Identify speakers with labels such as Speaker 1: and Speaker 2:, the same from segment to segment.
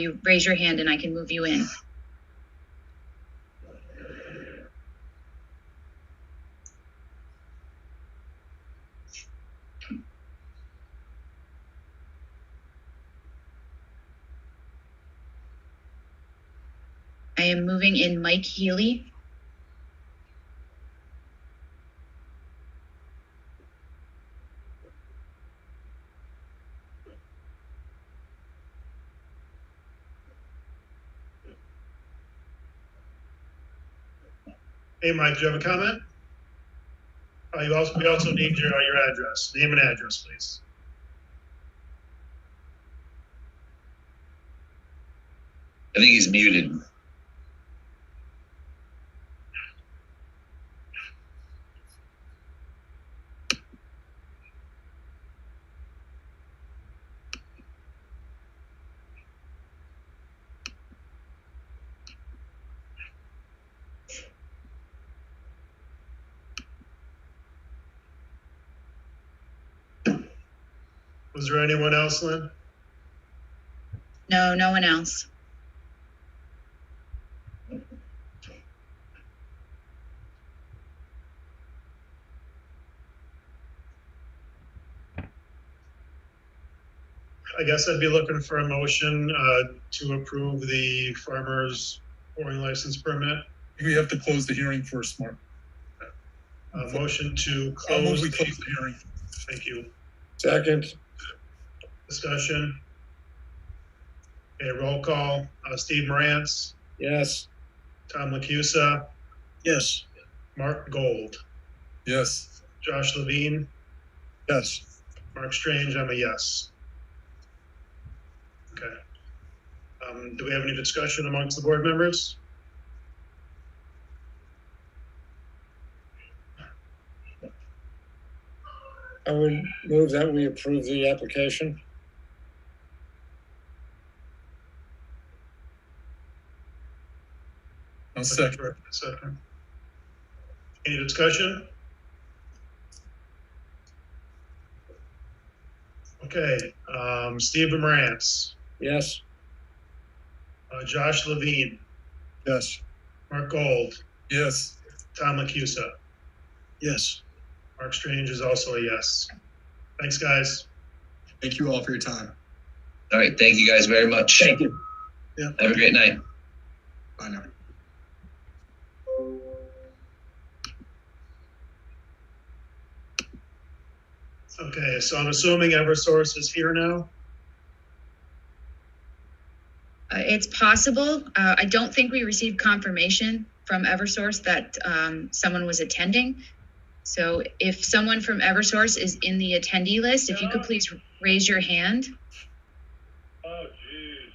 Speaker 1: you raise your hand and I can move you in. I am moving in Mike Healy.
Speaker 2: Hey, Mike, do you have a comment? Uh, you also, we also need your, uh, your address, name and address, please.
Speaker 3: I think he's muted.
Speaker 2: Was there anyone else, Lynn?
Speaker 1: No, no one else.
Speaker 2: I guess I'd be looking for a motion, uh, to approve the farmer's pouring license permit.
Speaker 4: We have to close the hearing first, Mark.
Speaker 2: A motion to
Speaker 4: I'll move
Speaker 2: close,
Speaker 4: we
Speaker 2: the-
Speaker 4: close the hearing.
Speaker 2: thank you,
Speaker 5: Second,
Speaker 2: discussion. Okay, roll call, uh, Steve Morantz,
Speaker 5: yes.
Speaker 2: Tom Lacusa,
Speaker 5: Yes.
Speaker 2: Mark Gold,
Speaker 4: Yes,
Speaker 2: Josh Levine,
Speaker 5: Yes.
Speaker 2: Mark Strange, I'm a yes. Okay. Um, do we have any discussion amongst the board members?
Speaker 5: I would move that we approve the application.
Speaker 4: I'll second.
Speaker 2: Second. Any discussion? Okay, um, Steve Morantz,
Speaker 5: Yes.
Speaker 2: uh, Josh Levine,
Speaker 5: Yes.
Speaker 2: Mark Gold,
Speaker 4: Yes,
Speaker 2: Tom Lacusa.
Speaker 5: Yes.
Speaker 2: Mark Strange is also a yes. Thanks, guys.
Speaker 6: Thank you all for your time.
Speaker 3: All right, thank you guys very much.
Speaker 5: Thank you.
Speaker 3: Have a great night.
Speaker 6: Bye now.
Speaker 2: Okay, so I'm assuming Eversource is here now?
Speaker 1: Uh, it's possible. Uh, I don't think we received confirmation from Eversource that um, someone was attending. So if someone from Eversource is in the attendee list, if you could please raise your hand.
Speaker 2: Oh, geez.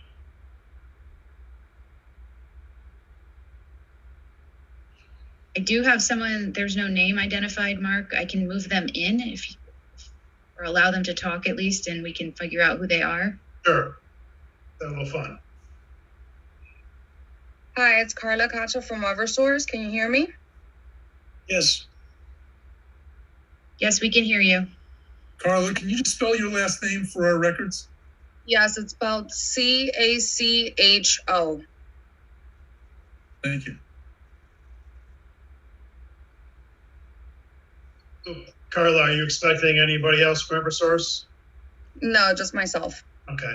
Speaker 1: I do have someone, there's no name identified, Mark. I can move them in if, or allow them to talk at least, and we can figure out who they are.
Speaker 2: Sure. That will fun.
Speaker 7: Hi, it's Carla Cacho from Eversource. Can you hear me?
Speaker 5: Yes.
Speaker 1: Yes, we can hear you.
Speaker 4: Carla, can you just spell your last name for our records?
Speaker 7: Yes, it's spelled C A C H O.
Speaker 4: Thank you.
Speaker 2: Carla, are you expecting anybody else from Eversource?
Speaker 7: No, just myself.
Speaker 2: Okay,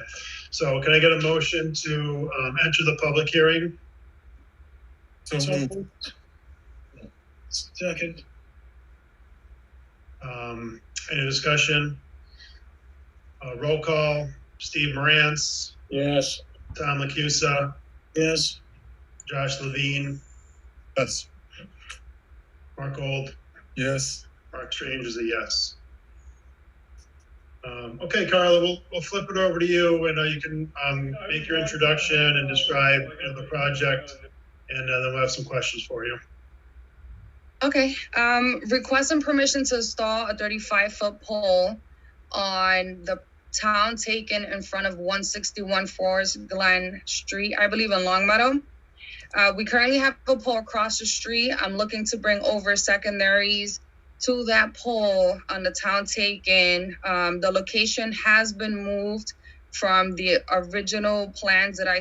Speaker 2: so can I get a motion to um, enter the public hearing?
Speaker 4: So moved.
Speaker 5: Second.
Speaker 2: Um, Any discussion? Uh, Roll call, Steve Morantz,
Speaker 5: Yes.
Speaker 2: Tom Lacusa,
Speaker 5: Yes.
Speaker 2: Josh Levine,
Speaker 4: Yes,
Speaker 2: Mark Gold,
Speaker 4: yes.
Speaker 2: Mark Strange is a yes. Um, Okay, Carla, we'll, we'll flip it over to you and uh, you can um, make your introduction and describe you know, the project. And uh, then we'll have some questions for you.
Speaker 7: Okay. Um, request and permission to install a 35 foot pole on the town taken in front of 161 Forest Glen Street, I believe in Longmeadow. Uh, we currently have a pole across the street. I'm looking to bring over secondaries to that pole on the town taken. Um, the location has been moved from the original plans that I